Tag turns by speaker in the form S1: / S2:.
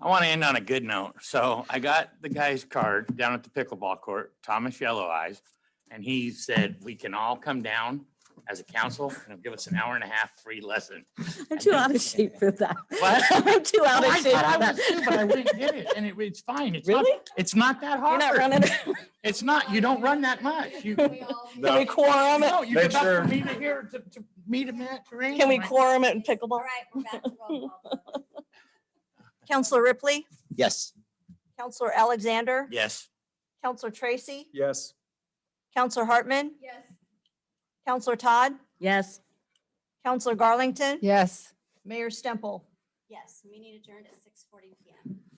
S1: I want to end on a good note. So I got the guy's card down at the pickleball court, Thomas Yellow Eyes. And he said, we can all come down as a council and he'll give us an hour and a half free lesson.
S2: I'm too out of shape for that.
S1: What?
S2: I'm too out of
S1: I
S2: shape
S1: thought I
S2: for
S1: was too, But I
S2: that.
S1: went and did it and it, it's fine. It's not,
S2: Really?
S1: it's not that
S2: You're
S1: hard.
S2: not running?
S1: It's not, you don't run that much. You.
S3: We all need
S2: Can we quorum it?
S1: No, you
S4: Make
S1: got to
S4: sure-
S1: meet it here to, to meet him at. terrain.
S2: Can we
S1: Like,
S2: quorum it in
S3: All
S2: pickleball?
S3: right, we're back to roll call.
S2: Counselor Ripley,
S5: Yes.
S2: Counselor Alexander,
S1: Yes.
S2: Counselor Tracy,
S4: Yes.
S2: Counselor Hartman,
S3: Yes,
S2: Counselor Todd,
S6: Yes.
S2: Counselor Garlington,
S6: Yes.
S2: Mayor Stemple.
S3: yes, meeting adjourned at six forty PM.